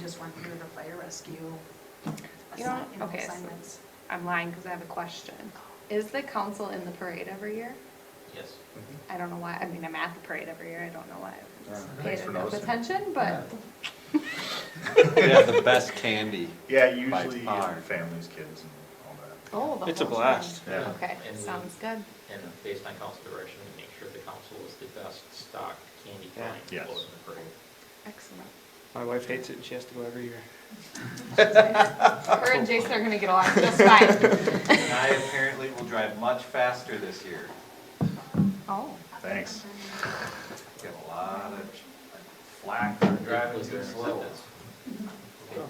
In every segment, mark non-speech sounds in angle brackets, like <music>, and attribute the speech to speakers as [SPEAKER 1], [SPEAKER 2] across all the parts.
[SPEAKER 1] just went through the fire rescue
[SPEAKER 2] You know,
[SPEAKER 1] assi- you know,
[SPEAKER 2] okay, so-
[SPEAKER 1] assignments.
[SPEAKER 2] I'm lying because I have a question. Is the council in the parade every year?
[SPEAKER 3] Yes.
[SPEAKER 4] Mm-hmm.
[SPEAKER 2] I don't know why, I mean, I'm at the parade every year, I don't know why. I
[SPEAKER 4] Yeah,
[SPEAKER 2] haven't
[SPEAKER 4] thanks
[SPEAKER 2] Paid
[SPEAKER 4] for
[SPEAKER 2] enough
[SPEAKER 4] noticing.
[SPEAKER 2] attention, but
[SPEAKER 5] They have the best candy.
[SPEAKER 4] <laughs> Yeah,
[SPEAKER 5] By
[SPEAKER 4] usually
[SPEAKER 5] far.
[SPEAKER 4] families, kids and all that.
[SPEAKER 2] Oh, the
[SPEAKER 6] It's a
[SPEAKER 2] whole
[SPEAKER 6] blast.
[SPEAKER 2] thing.
[SPEAKER 4] Yeah.
[SPEAKER 2] Okay,
[SPEAKER 3] And we-
[SPEAKER 2] sounds good.
[SPEAKER 3] And based on council direction, we make sure the council is the best stock candy
[SPEAKER 6] Yeah.
[SPEAKER 3] kind to
[SPEAKER 4] Yes.
[SPEAKER 3] blow in the parade.
[SPEAKER 4] <laughs>
[SPEAKER 2] Excellent.
[SPEAKER 6] My wife hates it and she has to go every year.
[SPEAKER 2] Her and Jason are gonna get along just fine.
[SPEAKER 4] <laughs>
[SPEAKER 5] And I apparently will drive much faster this year.
[SPEAKER 2] Oh,
[SPEAKER 4] Thanks.
[SPEAKER 5] Get a lot of flack uh, for driving
[SPEAKER 3] Was
[SPEAKER 5] too
[SPEAKER 3] there
[SPEAKER 5] slow.
[SPEAKER 3] acceptance? Okay.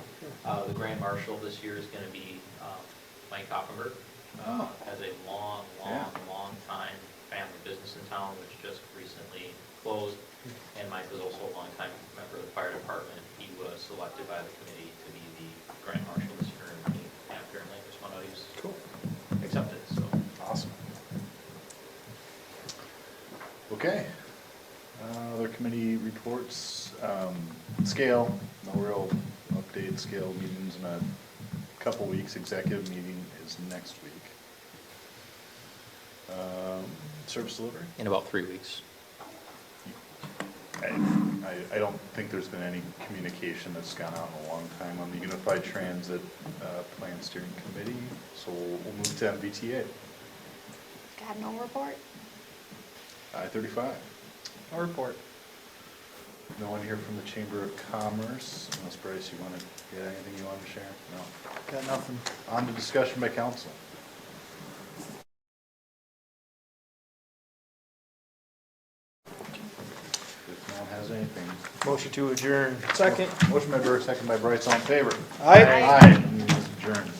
[SPEAKER 3] Uh, the grand marshal this year is gonna be, um, Mike Offenberg. Uh, has a long, long, long time family business in town, which just recently closed. And Mike was also a long time member of the fire department. He was selected by the committee to be the grand marshal this year, and he apparently just one of these
[SPEAKER 6] Cool.
[SPEAKER 3] accepted, so.
[SPEAKER 4] Awesome. Okay. Uh, Other committee reports, um, scale, no real update, scale meetings in a couple weeks, executive meeting is next week. Um, Service delivery?
[SPEAKER 3] In about three weeks.
[SPEAKER 4] I, I- I don't think there's been any communication that's gone out in a long time on the Unified Transit uh, Plan Steering Committee, so we'll we'll move to MBTA,
[SPEAKER 2] got no report?
[SPEAKER 4] I-35.
[SPEAKER 6] I'll report.
[SPEAKER 4] No one here from the Chamber of Commerce, unless Bryce, you want to get anything you want to share? No.
[SPEAKER 6] Got nothing.
[SPEAKER 4] On to discussion by council. If no one has anything.
[SPEAKER 6] Motion to adjourn. Second.
[SPEAKER 4] Motion by Burke, second by Bryce, all in favor?
[SPEAKER 6] Aye.
[SPEAKER 4] Aye. Meeting is adjourned.